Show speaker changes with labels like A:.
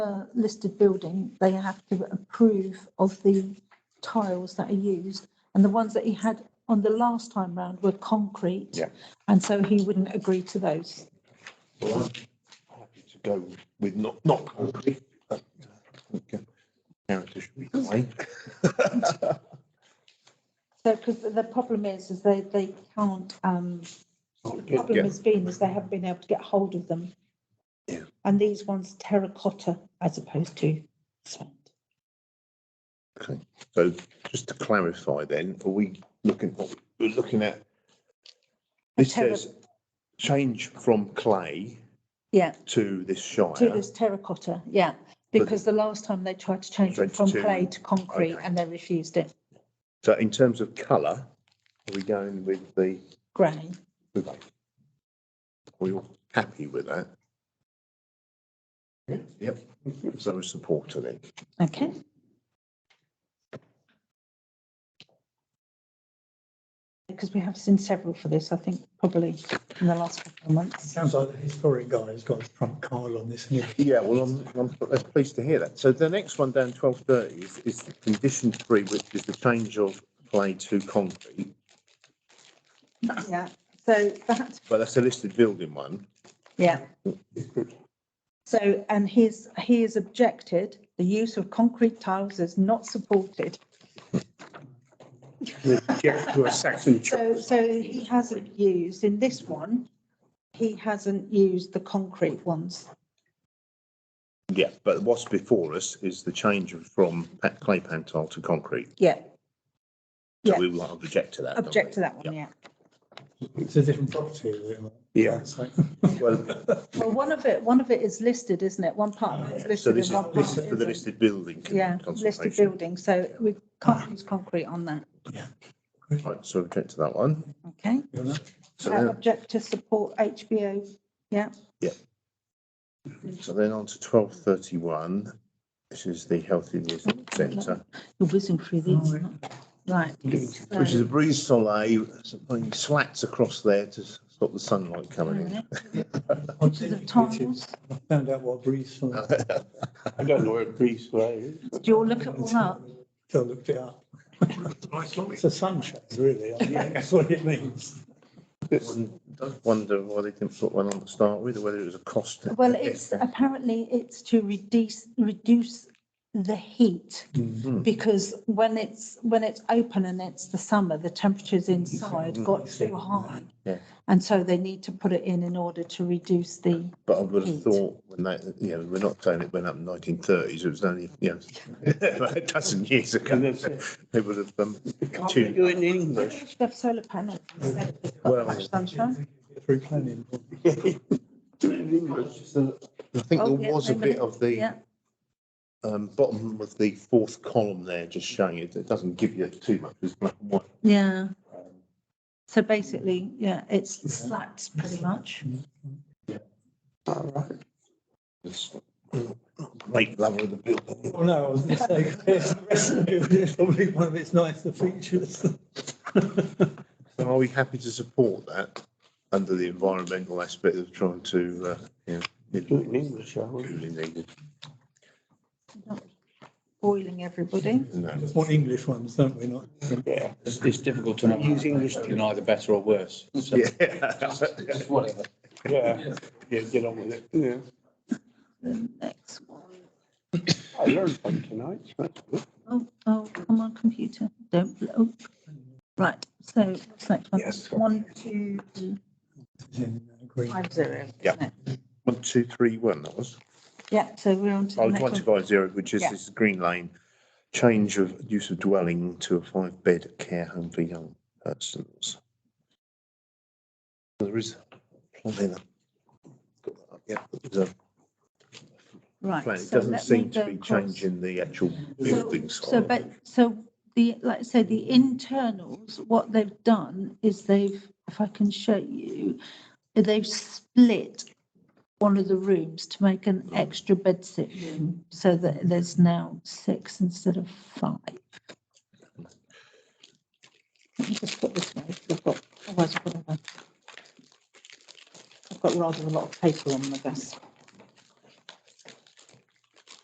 A: a listed building, they have to approve of the tiles that are used. And the ones that he had on the last time round were concrete.
B: Yeah.
A: And so he wouldn't agree to those.
B: Well, I'm happy to go with not, not concrete. but, uh, I think, uh, Character should be fine.
A: So, because the problem is, is they, they can't, um,
B: uh,
A: the problem
B: Yeah.
A: has been is they haven't been able to get hold of them.
B: Yeah.
A: And these ones terracotta as opposed to sand.
B: So just to clarify then, are we looking, we're looking at, this
A: terra-
B: says change from clay
A: Yeah,
B: to this uh,
A: to
B: shire.
A: this terracotta, yeah, because the last time they tried to change it
B: Change
A: from
B: to-
A: clay to concrete
B: okay.
A: and they refused it,
B: So uh, in terms of colour, are we going with the,
A: grey.
B: with, are we all happy with that? Yep, so a supporter then.
A: Okay. Because we have seen several for this, I think, probably in the last couple of months.
C: Sounds like the historic guy has got a trump card on this. and he-
B: Yeah, well, I'm, I'm that's pleased to hear that. So the next one down twelve thirty is, is condition three, which is the change of clay to concrete.
A: Yeah, so that,
B: But that's a listed building one.
A: yeah. So, and he's, he has objected, the use of concrete tiles is not supported.
D: object to a section.
A: So, so he hasn't used, in this one, he hasn't used the concrete ones.
B: Yeah. But what's before us is the change of- from pa- clay pantile to concrete.
A: Yeah,
B: So
A: Yeah.
B: we will object to that. don't
A: object to
B: we?
A: that one, yeah.
C: It's a different property, isn't it?
D: Yeah.
C: So-
B: Well,
A: Well, one of it, one of it is listed, isn't it? One part of it is
B: so
A: listed
B: this
A: and one
B: is,
A: part
B: this is for
A: isn't.
B: the listed building. con-
A: Yeah, listed
B: consultation.
A: building, so we can't use concrete on that,
B: Right, so object to that one.
A: okay?
C: you know?
B: So
A: Uh,
B: then,
A: Object to support HBO, yeah,
B: so then on to twelve thirty-one. This is the Healthiness Centre.
A: you're whizzing through these, right?
B: Which is
A: so-
B: a breeze soleil, putting slats across there to s- stop the sunlight coming in.
A: Which is the tiles,
C: I found out what breeze from,
D: I don't know where Greece was.
A: do you all look at all that?
C: so I looked it up. It's a sunshade, really. I think That's what it means.
B: Don't Wonder why they didn't put one on to start with, or whether it was a cost.
A: Well, it's, apparently it's to reduce, reduce the heat.
B: Mm-hmm.
A: Because when it's, when it's open and it's the summer, the temperatures inside got too high.
B: Mm-hmm. Yeah.
A: And so they need to put it in in order to reduce the,
B: But I would have
A: heat.
B: thought when that, you know, we're not saying it went up in nineteen thirties, it was only, you know, a dozen years ago.
D: And that's
B: They would have, um,
D: Can't we
B: tuned-
D: do it in English?
A: they have solar panels. instead of just
B: Well-
A: got much sunshine.
C: Through planning.
D: Do it in English.
B: I think
A: Oh,
B: there
A: yeah,
B: was a
A: wait
B: bit
A: minute.
B: of the,
A: Yeah,
B: um, bottom of the fourth column there, just showing it, it doesn't give you too much, it's black and white.
A: yeah. So basically, yeah, it's
B: Mm-hmm.
A: slats pretty much.
D: All right.
B: It's Great lover of the building.
C: Well, Oh, no, I was going to say, the rest of it is probably one of its nicer features.
B: So are we happy to support that under the environmental aspect of trying to, uh, you know, it-
D: Do it in English, shall we?
B: really needed?
A: Boiling everybody.
B: No.
C: Just want English ones, don't we, not?
D: Yeah.
E: It's, it's difficult to know.
D: Use English.
E: You can either better or worse. So
B: Yeah.
E: it's whatever.
D: Yeah, yeah, get on with it, yeah.
A: Next one.
D: I learned one tonight, so that's good.
A: Oh, oh, come on, computer, don't blow. up. Right, so what's next one?
D: Yes.
A: One, two,
C: It's in green.
A: five, zero. isn't
B: Yeah.
A: it?
B: One, two, three, one, that was.
A: Yeah, so we're on to
B: Oh,
A: the next
B: it was one, two,
A: one.
B: five, zero, which is
A: Yeah.
B: this Green Lane. Change of use of dwelling to a five bed care home for young persons. There is. plenty of- got that up, Yeah, there's a
A: Right.
B: plan. It
A: so
B: doesn't
A: let me
B: seem to
A: go
B: be
A: across.
B: changing the actual
A: So,
B: building
A: so,
B: side.
A: but, so the, like I say, the internals, what they've done is they've, if I can show you, they've split one of the rooms to make an extra bed sit room, so that there's now six instead of five. Let me just put this way, 'cause I've got, otherwise I've got a- I've got rather a lot of paper on my desk.